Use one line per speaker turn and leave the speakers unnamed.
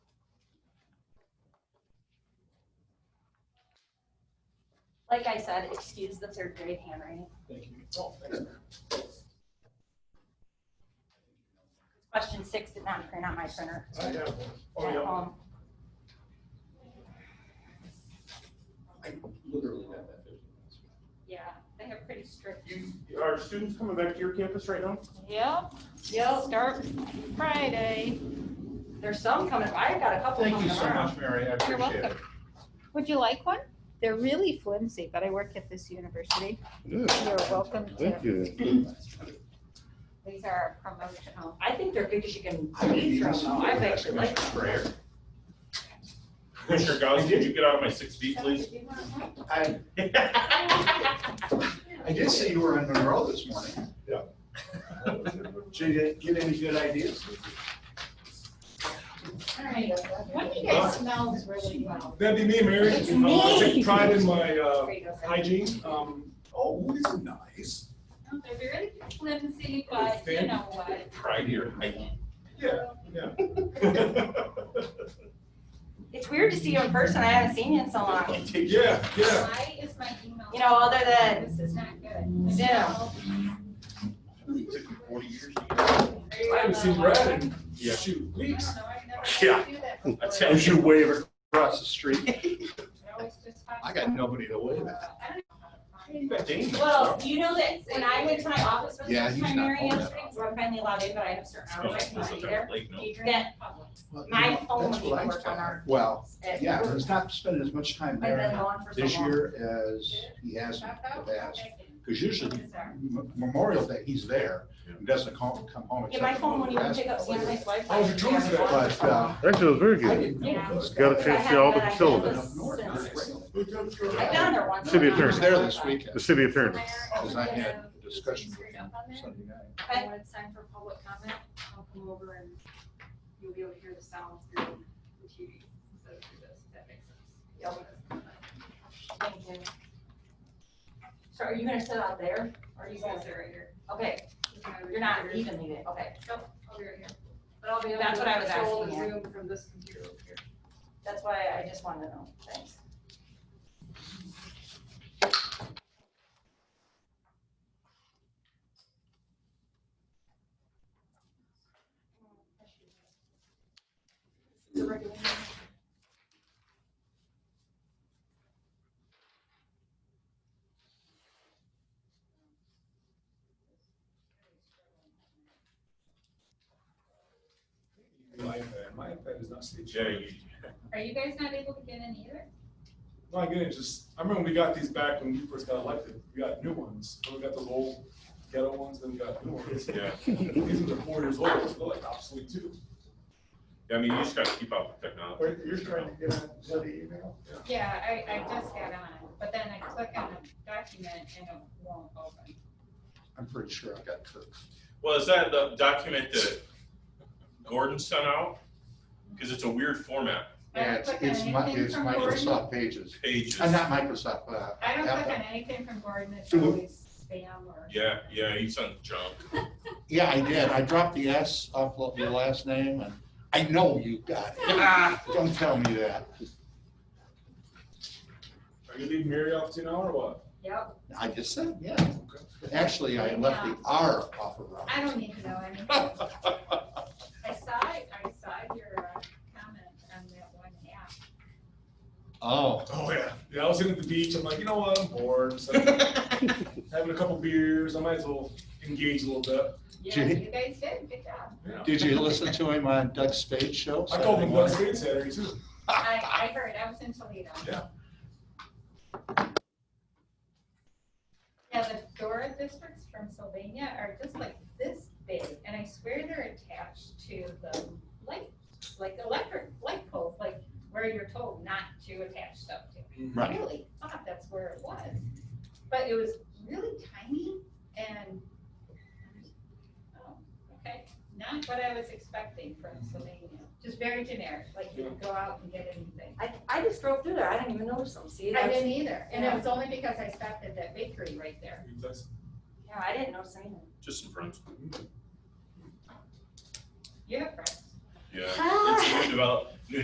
Like I said, excuse the third grade handwriting.
Thank you. Oh, thanks.
Question six did not print on my printer.
I have one. Oh,
at
yeah.
home.
I literally have that fifteen minutes.
Yeah, they have pretty strict.
You, are students coming back to your campus right now?
Yep,
Yep,
start Friday.
there's some coming, I've got a couple
Thank
coming
you so
tomorrow.
much, Mary. I
You're
appreciate it.
welcome. Would you like one? They're really flimsy, but I work at this university.
Good,
You're welcome to,
thank you.
these are our promotional.
I think they're good because you can
I would
read
even
from them, I've
support that,
actually liked
Commissioner Breyer.
Commissioner Gauss, could you get out of my six feet, please?
I, I did see you were in Monroe this morning. Yeah. Did you get any good ideas?
What do you guys smell is really well?
That'd be me, Mary.
It's
Um, I
me.
take pride in my uh,
There you go, Sarah.
hygiene. Um,
Oh, wood is nice.
They're very flimsy,
but you know
what?
Pride here.
Yeah, yeah.
It's weird to see you in person, I haven't seen you in so long.
Yeah, yeah.
Why is my email?
You know, other than
This is not good.
Yeah.
Took me forty years to get out.
I haven't seen Brad in,
Yeah.
shoot, weeks.
Yeah. I tell
As you wave across the street, I
I
got nobody to wave at.
You got Dane.
Well, you know that when I went to my office for the
Yeah,
first
he's
time,
not
Mary,
home
yesterday, because we're finally allowed in, but I have certain
Oh,
No,
hours
it's
I
not
cannot be
that
there.
late, no.
That
Well, you
my
know,
phone
that's
would
what I
work on
expect.
our.
Well,
at
yeah,
work.
he's not spending as much time
I've been
there
gone for so
this
long.
year as he has in the past. Because usually M- Memorial Day, he's there, He doesn't come, come home.
Yeah, my
except
phone
for
won't even pick up
basketball.
Santa's Wi-Fi.
Oh,
How's your tour today?
But, uh,
Actually, it was very
I
good.
didn't know this
Got
guy.
a chance to see all the children.
Up north,
Since-
regularly.
I've been there once.
Should be a
I was
turn.
there this weekend,
The city attorney.
because I had a discussion with him Sunday night.
Okay.
When it's time for public comment, I'll come over and you'll be able to hear the sound through the TV. instead of through this, if that makes sense.
Thank you. So are you gonna sit out there? Or
Are
are
you
you
guys
gonna,
there right here?
okay, you're not even leaving, okay.
I'll be right here. But I'll be able to.
That's what I was
control
asking,
the Zoom from this computer over here.
That's why I just wanted to know, thanks.
It's a regular meeting.
My iPad, my iPad is not staged.
Yeah, you-
Are you guys not able to get in either?
My goodness, just, I remember when we got these back when we first got elected, we got new ones. Then we got those old ghetto ones, then we got new ones.
Yeah.
These ones are four years old, so they're like obsolete too.
I mean, you just gotta keep up with technology.
Wait, You're trying to get on, is that the email?
Yeah, I, I just got on, but then I click on a document and it won't open.
I'm pretty sure I got Kirk's.
Well, is that the document that Gordon sent out? Because it's a weird format,
I
Yeah,
don't
it's,
click on
it's Mi-
anything
it's
from Gordon.
Microsoft Pages,
pages.
Uh, not Microsoft, uh,
I don't click on
Apple.
anything from Gordon, it's
Mhm.
always spam or.
Yeah, yeah, he sent junk.
Yeah, I did, I dropped the S off of your last name, and I know you got it. Don't tell me that,
Are you leaving Mary off to an hour or what?
Yep.
I just said, yeah. Actually, I left the R off of Robert's.
I don't need to know anything. I saw, I saw your uh, comment on that one app.
Oh,
Oh, yeah. Yeah, I was sitting at the beach. I'm like, you know what? I'm bored. So having a couple beers. I might as well engage a little bit.
Yeah,
Gee.
you guys did, good job.
Yeah.
did you listen to him on Doug Spade's show?
I called
Saturday
him Doug
morning?
Spade Saturday too.
I, I heard, I was in Toledo.
Yeah.
Yeah, the Dora districts from Sylvania are just like this big, and I swear they're attached to the light, like electric light poles, like where you're told not to attach stuff to. I
Right.
really thought that's where it was, but it was really tiny and, oh, okay, not what I was expecting from Sylvania. Just very generic, like you could go out and get anything.
I, I just drove through there, I didn't even notice them, see?
I
that's-
didn't either, and it was only because I stopped at that bakery right there.
That's-
Yeah, I didn't notice anything.
Just some friends.
You have friends?
Ah.
Yeah. It's new develop, new